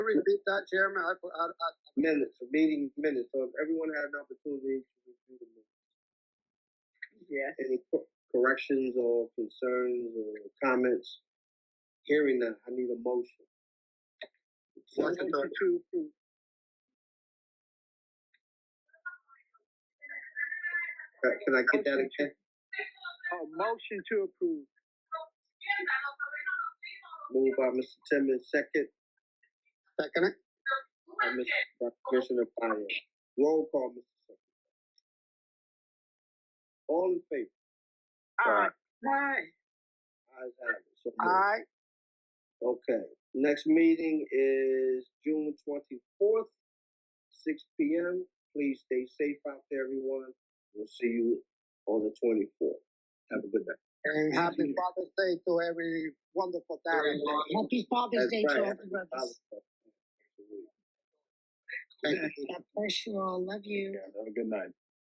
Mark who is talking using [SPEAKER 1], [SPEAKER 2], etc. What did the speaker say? [SPEAKER 1] repeat that, Chairman? I, I, I, minutes, meeting minutes. So if everyone had an opportunity to review the minutes,
[SPEAKER 2] Yes.
[SPEAKER 1] any co- corrections or concerns or comments, hearing that, I need a motion. Second,
[SPEAKER 2] Motion to approve.
[SPEAKER 1] uh, can I get that again?
[SPEAKER 2] Oh, motion to approve.
[SPEAKER 1] Moved by Mr. Timmons, second. Second it. By Mr. by Commissioner Fire. Roll call, Mr. Secretary. All in favor?
[SPEAKER 2] Aye.
[SPEAKER 1] Ayes have it. So moved.
[SPEAKER 2] Aye.
[SPEAKER 1] Okay, next meeting is June twenty-fourth, six P M. Please stay safe out there, everyone. We'll see you on the twenty-fourth. Have a good night.
[SPEAKER 2] And happy Father's Day to every wonderful dad.
[SPEAKER 3] Happy Father's
[SPEAKER 1] That's
[SPEAKER 3] Day
[SPEAKER 1] right.
[SPEAKER 3] to all
[SPEAKER 1] Happy
[SPEAKER 3] the brothers.
[SPEAKER 1] Father's Day. Absolutely. Thank you.
[SPEAKER 3] God bless you all. Love you.
[SPEAKER 4] Have a good night.